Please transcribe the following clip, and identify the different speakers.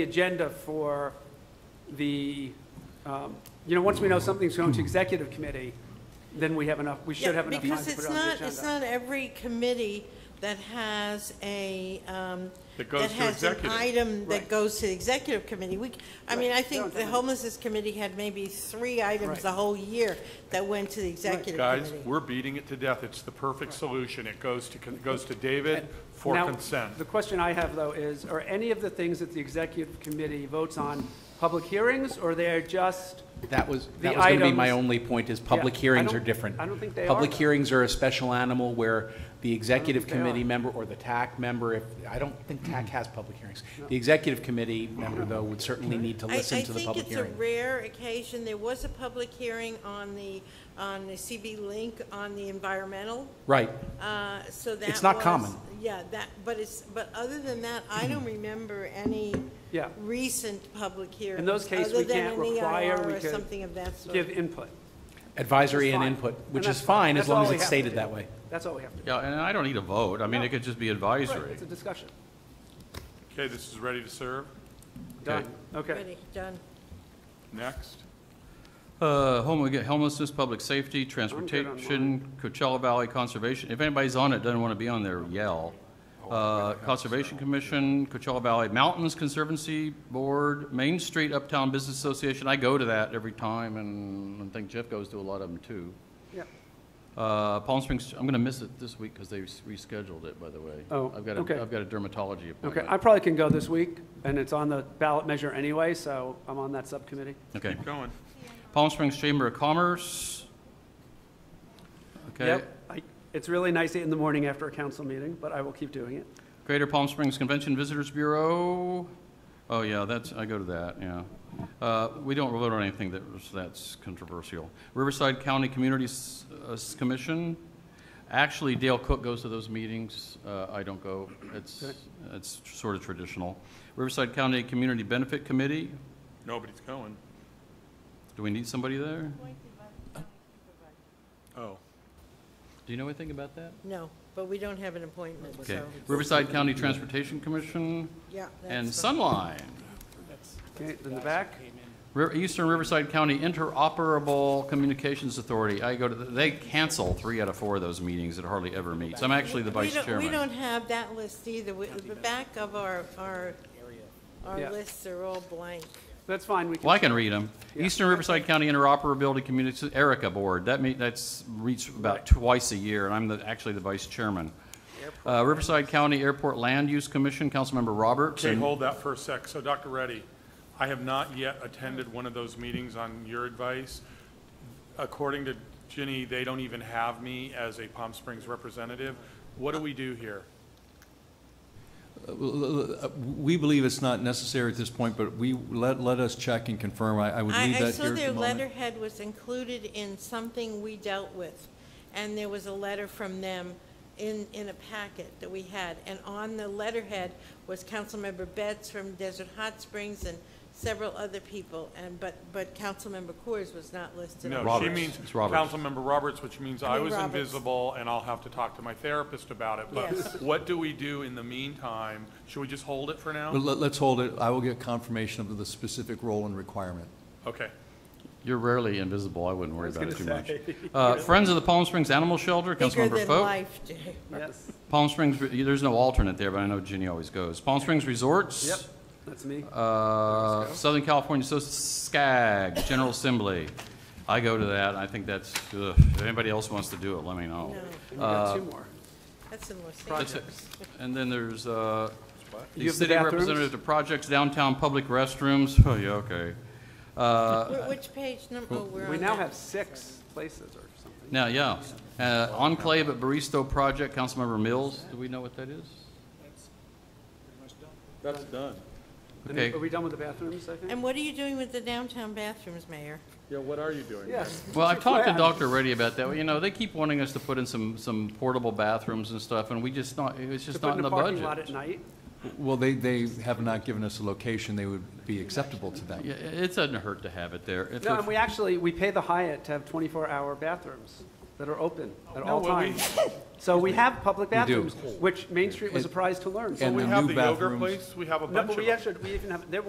Speaker 1: the agenda for the, um, you know, once we know something's going to executive committee, then we have enough, we should have enough time to put it on the
Speaker 2: Because it's
Speaker 1: agenda.
Speaker 2: not, it's not every committee that has a, um,
Speaker 3: That goes to
Speaker 2: That
Speaker 3: executive.
Speaker 2: has an item
Speaker 1: Right.
Speaker 2: that goes to the executive committee. We, I mean, I think the
Speaker 1: definitely.
Speaker 2: homelessness committee had maybe three items
Speaker 1: Right.
Speaker 2: the whole year that went to the executive
Speaker 3: Guys,
Speaker 2: committee.
Speaker 3: we're beating it to death. It's the perfect solution. It goes to, it goes to David for
Speaker 1: Now,
Speaker 3: consent.
Speaker 1: The question I have, though, is, are any of the things that the executive committee votes on public hearings, or they are just,
Speaker 4: That was,
Speaker 1: The
Speaker 4: that was going to be my
Speaker 1: items-
Speaker 4: only point, is public
Speaker 1: Yeah, I
Speaker 4: hearings
Speaker 1: don't-
Speaker 4: are different.
Speaker 1: I don't think they are,
Speaker 4: Public
Speaker 1: though.
Speaker 4: hearings are a special animal where the executive
Speaker 1: think they are.
Speaker 4: committee member or the TAC member, if, I don't think TAC has public hearings. The executive committee member, though, would certainly need to
Speaker 2: I-
Speaker 4: listen to the public
Speaker 2: I think
Speaker 4: hearing.
Speaker 2: it's a rare occasion, there was a public hearing on the, on the CB Link on the environmental,
Speaker 4: Right.
Speaker 2: uh, so that
Speaker 4: It's not
Speaker 2: was-
Speaker 4: common.
Speaker 2: Yeah, that, but it's, but other than that, I don't remember any
Speaker 1: Hmm. Yeah.
Speaker 2: recent public hearings.
Speaker 1: In those case,
Speaker 2: other
Speaker 1: we
Speaker 2: than
Speaker 1: can't
Speaker 2: an
Speaker 1: require,
Speaker 2: EIR
Speaker 1: we
Speaker 2: or
Speaker 1: could
Speaker 2: Something of that sort.
Speaker 1: give input?
Speaker 4: Advisory and
Speaker 1: Fine.
Speaker 4: input, which
Speaker 1: And
Speaker 4: is
Speaker 1: that's
Speaker 4: fine, as
Speaker 1: That's
Speaker 4: long
Speaker 1: all
Speaker 4: as
Speaker 1: we
Speaker 4: it's
Speaker 1: have to
Speaker 4: stated
Speaker 1: do.
Speaker 4: that way.
Speaker 1: That's all we have to do.
Speaker 5: Yeah, and I don't need a vote. I mean, it could just be
Speaker 1: Right,
Speaker 5: advisory.
Speaker 1: It's a discussion.
Speaker 3: Okay, this is ready to serve.
Speaker 1: Done.
Speaker 5: Okay.
Speaker 1: Okay.
Speaker 2: Ready, done.
Speaker 3: Next.
Speaker 5: Uh, homo- Homelessness, public safety, transportation,
Speaker 1: mine.
Speaker 5: Coachella Valley Conservation. If anybody's on it, doesn't want to be on there, yell.
Speaker 1: Oh,
Speaker 5: Uh, Conservation Commission, Coachella Valley Mountains Conservancy Board, Main Street Uptown Business Association. I go to that every time, and I think Jeff goes to a lot of them, too.
Speaker 1: Yeah.
Speaker 5: Uh, Palm Springs, I'm going to miss it this week because they rescheduled it, by the way.
Speaker 1: Oh,
Speaker 5: I've got a-
Speaker 1: okay.
Speaker 5: I've got a dermatology appointment.
Speaker 1: Okay, I probably can go this week, and it's on the ballot measure anyway, so I'm on that subcommittee.
Speaker 5: Okay.
Speaker 3: Going.
Speaker 5: Palm Springs Chamber of Commerce. Okay.
Speaker 1: Yep, I- It's really nice in the morning after a council meeting, but I will keep doing it.
Speaker 5: Greater Palm Springs Convention Visitors Bureau. Oh, yeah, that's, I go to that, yeah. Uh, We don't vote on anything that was- that's controversial. Riverside County Communities uh, s- Commission. Actually, Dale Cook goes to those meetings. Uh, I don't go. It's, it's sort of traditional. Riverside County Community Benefit Committee.
Speaker 3: Nobody's going.
Speaker 5: Do we need somebody there?
Speaker 3: Oh.
Speaker 5: Do you know anything about that?
Speaker 2: No, but we don't have an appointment,
Speaker 5: Okay.
Speaker 2: so,
Speaker 5: Riverside County Transportation Commission.
Speaker 2: yeah. that's
Speaker 5: And
Speaker 2: fine.
Speaker 5: Sunline,
Speaker 1: Okay, in the back?
Speaker 5: Ri- Eastern Riverside County Interoperable Communications Authority. I go to, the- they cancel three out of four of those meetings. It hardly ever meets. I'm actually the
Speaker 2: We
Speaker 5: vice
Speaker 2: don't-
Speaker 5: chairman.
Speaker 2: We don't have that list either. We- The back of our, our,
Speaker 1: Yeah.
Speaker 2: our lists are all blank.
Speaker 1: That's fine, we
Speaker 5: Well, I
Speaker 1: can,
Speaker 5: can read them. Eastern Riverside County Interoperability Community, ERICA Board, that meet, that's reached about twice a year, and I'm the, actually the vice chairman. Uh, Riverside County Airport Land Use Commission, Councilmember Roberts.
Speaker 3: Okay,
Speaker 5: and-
Speaker 3: hold that for a sec. So Dr. Reddy, I have not yet attended one of those meetings on your advice. According to Ginny, they don't even have me as a Palm Springs representative. What do we do here?
Speaker 6: We believe it's not necessary at this point, but we, let, let us check and confirm. I, I would
Speaker 2: I,
Speaker 6: leave that here
Speaker 2: I
Speaker 6: at the
Speaker 2: saw
Speaker 6: moment.
Speaker 2: their letterhead was included in something we dealt with, and there was a letter from them in, in a packet that we had. And on the letterhead was Councilmember Betts from Desert Hot Springs and several other people, and, but, but Councilmember Coors was not listed. on
Speaker 3: No, she
Speaker 5: Roberts.
Speaker 3: means
Speaker 5: It's Roberts.
Speaker 3: Councilmember Roberts, which means
Speaker 2: I
Speaker 3: I
Speaker 2: mean
Speaker 3: was
Speaker 2: Roberts.
Speaker 3: invisible, and I'll have to talk to my therapist about it. But
Speaker 2: Yes.
Speaker 3: what do we do in the meantime? Should we just hold it for
Speaker 6: But
Speaker 3: now?
Speaker 6: let, let's hold it. I will get confirmation of the specific role and requirement.
Speaker 3: Okay.
Speaker 5: You're rarely invisible, I wouldn't worry about it too
Speaker 1: gonna
Speaker 5: much. Uh, Friends of the Palm Springs Animal Shelter,
Speaker 2: Bigger
Speaker 5: Councilmember
Speaker 2: than
Speaker 5: Foat.
Speaker 2: life, Jay.
Speaker 1: yes,
Speaker 5: Palm Springs, there's no alternate there, but I know Ginny always goes. Palm Springs Resorts.
Speaker 1: yep, that's me.
Speaker 5: Uh, Southern California, so SCAG, General Assembly. I go to that, I think that's, ugh, if anybody else wants to do it, let me know.
Speaker 1: We got
Speaker 5: uh,
Speaker 1: two more.
Speaker 2: That's in Los
Speaker 5: That's
Speaker 2: Angeles.
Speaker 5: it. And then there's, uh,
Speaker 1: You have
Speaker 5: the
Speaker 1: the
Speaker 5: city
Speaker 1: bathrooms?
Speaker 5: representative to projects, downtown public restrooms, oh, yeah, okay. Uh,
Speaker 2: Wh- Which page number, oh, we're on
Speaker 1: We now
Speaker 2: that.
Speaker 1: have six places or something.
Speaker 5: Now, yeah, Uh, Enclave at Baristo Project, Councilmember Mills, do we know what that is?
Speaker 3: That's done.
Speaker 1: And
Speaker 5: Okay.
Speaker 1: Are we done with the bathrooms, I think?
Speaker 2: And what are you doing with the downtown bathrooms, Mayor?
Speaker 3: Yeah, what are you doing?
Speaker 1: Yes.
Speaker 5: Well, I've talked to
Speaker 1: Plan.
Speaker 5: Dr. Reddy about that, you know, they keep wanting us to put in some, some portable bathrooms and stuff, and we just not, it's
Speaker 1: To
Speaker 5: just
Speaker 1: put
Speaker 5: not
Speaker 1: in
Speaker 5: in the
Speaker 1: a parking lot
Speaker 5: budget.
Speaker 1: at night,
Speaker 6: Well, they, they have not given us a location. They would be acceptable to them.
Speaker 5: Yeah, it doesn't hurt to have it there. If
Speaker 1: no,
Speaker 5: it-
Speaker 1: and we actually, we pay the Hyatt to have twenty-four hour bathrooms that are open at all
Speaker 3: well, we-
Speaker 1: times. So we have public
Speaker 6: We do.
Speaker 1: bathrooms, which Main Street was
Speaker 6: And-
Speaker 1: surprised to learn. So
Speaker 6: and
Speaker 1: we
Speaker 3: We
Speaker 6: the
Speaker 3: have
Speaker 6: new
Speaker 3: the yoga
Speaker 6: bathrooms.
Speaker 3: place, we have a bunch
Speaker 1: No,
Speaker 3: of
Speaker 1: but we
Speaker 3: them.
Speaker 1: actually, we even have, there